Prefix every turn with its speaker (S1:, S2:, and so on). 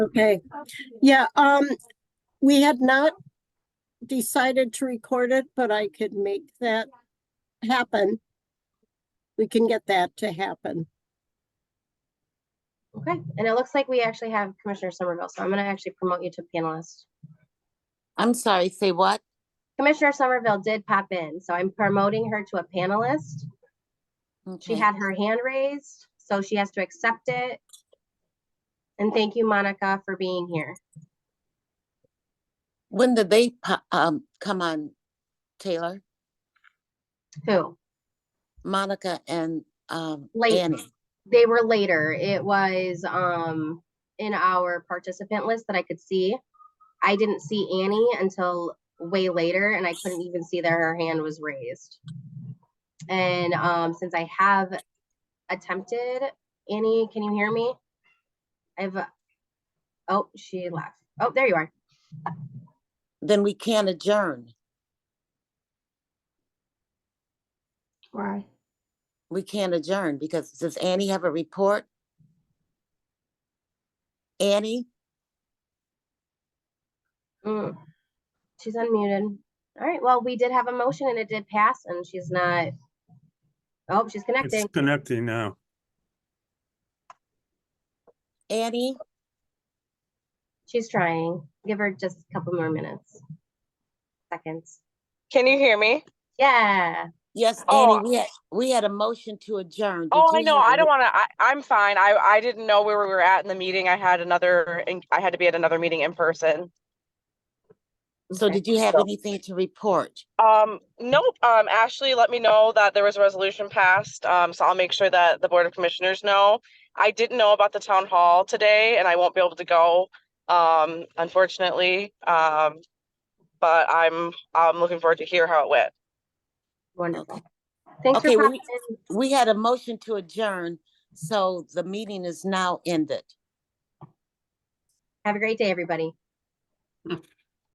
S1: Okay, yeah, um, we had not decided to record it, but I could make that happen. We can get that to happen.
S2: Okay, and it looks like we actually have Commissioner Somerville, so I'm gonna actually promote you to panelist.
S3: I'm sorry, say what?
S2: Commissioner Somerville did pop in, so I'm promoting her to a panelist. She
S3: Okay.
S2: had her hand raised, so she has to accept it. And thank you, Monica, for being here.
S3: When did they, po- um, come on, Taylor,
S2: Who?
S3: Monica and, um,
S2: Late.
S3: Annie?
S2: They were later. It was um in our participant list that I could see. I didn't see Annie until way later and I couldn't even see that her hand was raised. And um since I have attempted, Annie, can you hear me? I've oh, she left. Oh, there you are.
S3: Then we can't adjourn.
S4: Why?
S3: We can't adjourn because does Annie have a report? Annie,
S2: Mm. She's unmuted. All right, well, we did have a motion and it did pass and she's not Oh, she's
S5: It's
S2: connecting.
S5: connecting now.
S3: Annie,
S2: She's trying. Give her just a couple more minutes. Seconds.
S6: Can you hear me?
S2: Yeah.
S3: yes,
S6: Oh.
S3: Annie, we had, we had a motion to adjourn. Did
S6: Oh, I
S3: you
S6: know.
S3: have a
S6: I don't
S3: re-
S6: want to. I'm fine. I, I didn't know where we were at in the meeting. I had another, en- I had to be at another meeting in person.
S3: So
S2: Okay.
S3: did you have anything to report?
S6: Um, nope. Um, Ashley let me know that there was a resolution passed. Um, so I'll make sure that the Board of Commissioners know. I didn't know about the town hall today and I won't be able to go, um, unfortunately. Um, but I'm, I'm looking forward to hear how it went.
S2: Wonderful. Thanks
S3: Okay,
S2: for
S3: we-
S2: popping in.
S3: We had a motion to adjourn, so the meeting is now ended.
S2: Have a great day, everybody.